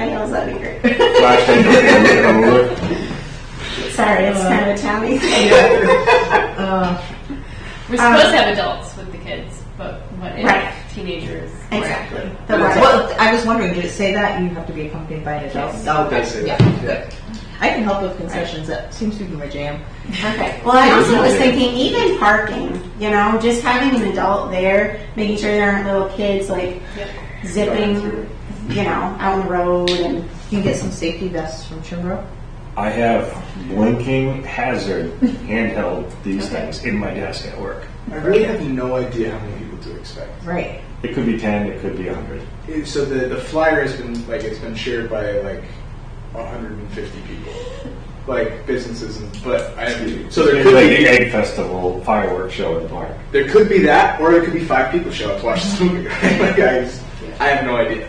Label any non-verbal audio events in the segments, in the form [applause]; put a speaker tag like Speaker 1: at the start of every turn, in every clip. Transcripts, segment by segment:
Speaker 1: emails, that'd be great.
Speaker 2: [laughs]
Speaker 3: Last thing, I'm gonna look.
Speaker 1: Sorry, it's kind of a townie.
Speaker 4: We're supposed to have adults with the kids, but what if
Speaker 1: Um, Right.
Speaker 4: teenagers?
Speaker 1: [laughs] Exactly. The one-
Speaker 5: Well, I was wondering, did it say that you have to be accompanied by an adult? Oh,
Speaker 3: They say
Speaker 5: yeah.
Speaker 3: that, yeah.
Speaker 5: I can help with concessions, that seems to be my jam.
Speaker 1: Okay. Well, I also was thinking, even parking, you know, just having an adult there, making sure there aren't little kids like zipping, you know, out on the road and.
Speaker 5: You can get some safety vests from Chimbrow.
Speaker 3: I have blinking hazard handheld these things in my desk at work.
Speaker 2: I really have no idea how many people to expect.
Speaker 5: Right.
Speaker 3: It could be ten, it could be a hundred.
Speaker 2: It- So the, the flyer has been like it's been shared by like 150 people, like businesses, and, but I so there
Speaker 3: It's like
Speaker 2: could
Speaker 3: the
Speaker 2: be
Speaker 3: egg festival fireworks show in the park.
Speaker 2: there could be that, or there could be five people show up to watch this movie. [laughs] Right? like I, just- I have no idea.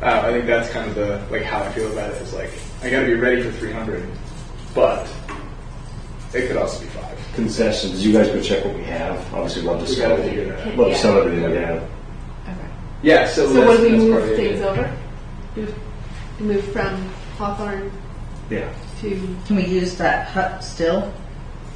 Speaker 2: Uh, I think that's kind of the like how I feel about it is like I got to be ready for 300, but it could also be five.
Speaker 3: Concessions, you guys go check what we have. Obviously, love to
Speaker 2: We gotta
Speaker 3: sell,
Speaker 2: figure that out.
Speaker 3: love to sell everything we have.
Speaker 2: Yeah, so,
Speaker 4: So
Speaker 2: that's,
Speaker 4: would we
Speaker 2: that's part
Speaker 4: move
Speaker 2: of the
Speaker 4: things
Speaker 2: idea.
Speaker 4: over? Move- Move from Hawthorne
Speaker 3: Yeah.
Speaker 4: to,
Speaker 5: Can we use that hut still?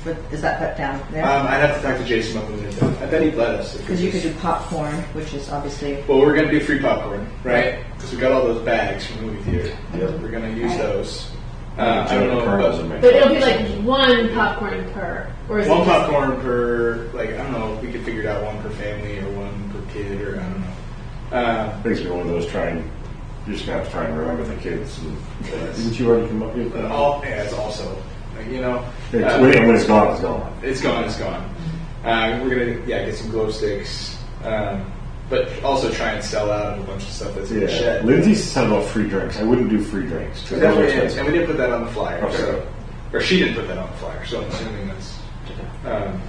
Speaker 5: For, is that hut down there?
Speaker 2: Um, I'd have to talk to Jason about moving it. down. I bet he'd let us. if
Speaker 5: Because you
Speaker 2: it's-
Speaker 5: could do popcorn, which is obviously,
Speaker 2: Well, we're gonna do free popcorn, right? Because we got all those bags from the movie theater.
Speaker 3: Yep.
Speaker 2: We're gonna use those. Uh, I don't
Speaker 3: Kernels in
Speaker 2: know.
Speaker 3: my-
Speaker 4: but it'll be like one popcorn per, or is
Speaker 2: But
Speaker 4: it?
Speaker 2: one
Speaker 4: just-
Speaker 2: popcorn per, like I don't know. We could figure it out one per family or one per kid or I don't know. Uh,
Speaker 3: I think it's gonna be one of those trying, you're just gonna have to try and remember the kids. and- Didn't you already come up with
Speaker 2: but
Speaker 3: that?
Speaker 2: all yeah, it's also like you know.
Speaker 3: It's-
Speaker 2: uh,
Speaker 3: When when it's gone, it's gone.
Speaker 2: It's gone. It's gone. Uh, we're gonna yeah get some glow sticks, um, but also try and sell out of a bunch of stuff that's in the
Speaker 3: Yeah.
Speaker 2: shed.
Speaker 3: Lindsay said about free drinks. I wouldn't do free drinks because
Speaker 2: That
Speaker 3: those are
Speaker 2: we didn't- and
Speaker 3: expensive.
Speaker 2: we didn't put that on the flyer,
Speaker 3: Okay.
Speaker 2: so, or she didn't put that on the flyer, so I'm assuming that's. Um,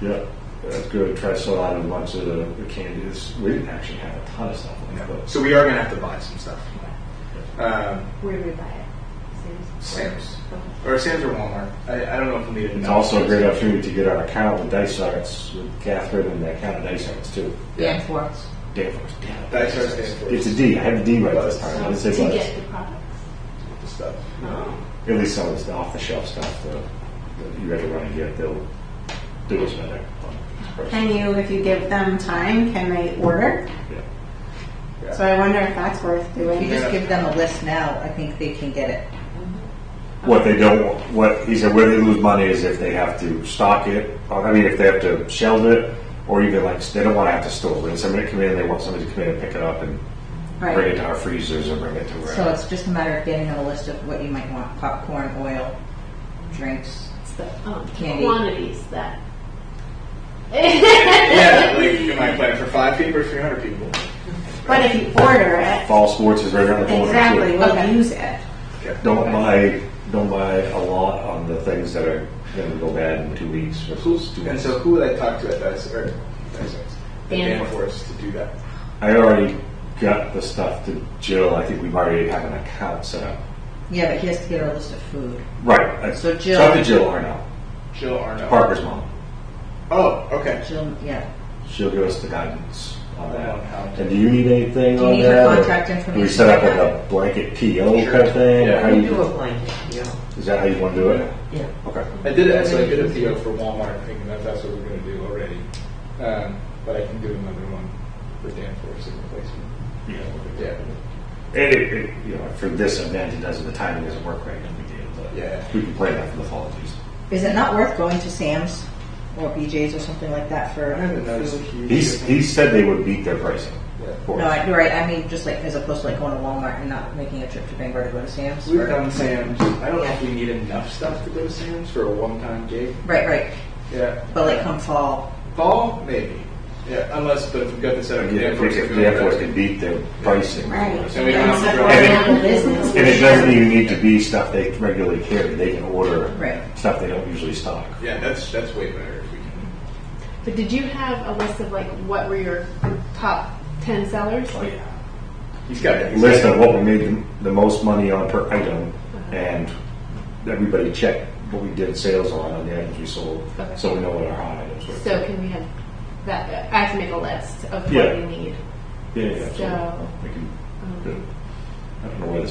Speaker 3: Yep, that's good. Try to sell out a bunch of the, the candies. We didn't actually have a ton of stuff like that. But
Speaker 2: So we are gonna have to buy some stuff. Um,
Speaker 4: Where do we buy it? Sam's?
Speaker 2: Sam's or Sam's or Walmart. I, I don't know if we'll need it.
Speaker 3: it's also a great opportunity to get our account with Dice Arts with Catherine and the account of Dice Arts too.
Speaker 5: and for us.
Speaker 3: Danforth. Damn.
Speaker 2: Dice Arts stands for
Speaker 3: It's a D. I had the D right this time. I didn't say
Speaker 4: To
Speaker 3: Buzz.
Speaker 4: get the products?
Speaker 2: the stuff.
Speaker 3: At least some of the off the shelf stuff that, that you had to run and get, they'll do us better.
Speaker 1: Can you, if you give them time, can they order?
Speaker 3: Yeah.
Speaker 1: So I wonder if that's worth
Speaker 5: If you
Speaker 1: doing.
Speaker 5: just give them a list now, I think they can get it.
Speaker 3: What they don't, want- what, he said, where they lose money is if they have to stock it, or, I mean, if they have to shelve it, or even like, they don't wanna have to store it, somebody come in, they want somebody to come in and pick it up and bring it
Speaker 1: Right.
Speaker 3: to our freezers or bring it to
Speaker 5: So
Speaker 3: wherever.
Speaker 5: it's just a matter of getting them a list of what you might want, popcorn, oil, drinks.
Speaker 4: It's the um,
Speaker 5: Candy.
Speaker 4: quantities that.
Speaker 2: Yeah, like am I planning for five people or three hundred people?
Speaker 1: But if you order it,
Speaker 3: Fall sports is right around the corner. too.
Speaker 1: exactly, we'll
Speaker 5: Okay.
Speaker 1: use it.
Speaker 2: Okay.
Speaker 3: Don't buy, don't buy a lot on the things that are gonna go bad in two weeks or two
Speaker 2: Who's, and
Speaker 3: weeks.
Speaker 2: so who would I talk to at Dice or Dice Arts? At
Speaker 4: Dan.
Speaker 2: Danforth to do that.
Speaker 3: I already got the stuff to Jill, I think we've already have an account set up.
Speaker 5: Yeah, but he has to get her a list of food.
Speaker 3: Right. I-
Speaker 5: So Jill-
Speaker 3: Talk to Jill Arno,
Speaker 2: Jill Arno.
Speaker 3: Parker's mom.
Speaker 2: Oh, okay.
Speaker 5: She'll, yeah.
Speaker 3: She'll give us the guidance on
Speaker 2: On how
Speaker 3: that.
Speaker 2: to-
Speaker 3: And do you need anything
Speaker 5: Do you
Speaker 3: on
Speaker 5: need her
Speaker 3: that? or
Speaker 5: contact
Speaker 3: Do we
Speaker 5: information?
Speaker 3: set up like a blanket PO
Speaker 2: Sure.
Speaker 3: kind of thing? or
Speaker 2: Yeah.
Speaker 3: how
Speaker 6: You
Speaker 3: you-
Speaker 6: do a blanket, yeah,
Speaker 3: Is that how you want to do it?
Speaker 6: yeah.
Speaker 3: Okay.
Speaker 2: I did it. So I did a PO for Walmart, thinking that that's what we're going to do already. Um, but I can do another one for Danforth in replacement. Yeah.
Speaker 3: And it, it, you know, for this event, it doesn't, the timing doesn't work right, and we did, but
Speaker 2: Yeah.
Speaker 3: we can plan that for the fall at least.
Speaker 5: Is it not worth going to Sam's or BJ's or something like that for
Speaker 2: I haven't noticed a
Speaker 5: food?
Speaker 2: huge.
Speaker 3: He's, he said they would beat their pricing.
Speaker 2: Yeah.
Speaker 3: for
Speaker 5: No,
Speaker 3: us.
Speaker 5: I, you're right. I mean, just like as opposed to like going to Walmart and not making a trip to Bangor to go to Sam's.
Speaker 2: We've
Speaker 5: or-
Speaker 2: done Sam's. I don't know if we need enough stuff to go to Sam's for a one-time gig.
Speaker 5: Right, right.
Speaker 2: Yeah.
Speaker 5: But like come fall,
Speaker 2: fall, maybe. Yeah, unless but if we've got this set up,
Speaker 3: Yeah, if we- if the airport can beat their pricing.
Speaker 1: Right.
Speaker 2: And we don't have to
Speaker 1: Support
Speaker 2: drive.
Speaker 1: local business.
Speaker 3: And it doesn't even need to be stuff they regularly carry, they can order
Speaker 5: Right.
Speaker 3: stuff they don't usually stock.
Speaker 2: Yeah, that's that's way better if we can.
Speaker 4: But did you have a list of like what were your top ten sellers?
Speaker 3: Oh, yeah.
Speaker 2: He's got it.
Speaker 3: List of what we made the, the most money on per item, and everybody checked what we did sales on, on the items we sold,
Speaker 4: Okay.
Speaker 3: so we know what our hot items were.
Speaker 4: So can we have that? I have to make a list of
Speaker 3: Yeah.
Speaker 4: what we need.
Speaker 3: Yeah, yeah,
Speaker 4: So-
Speaker 3: absolutely. We can- I don't know where this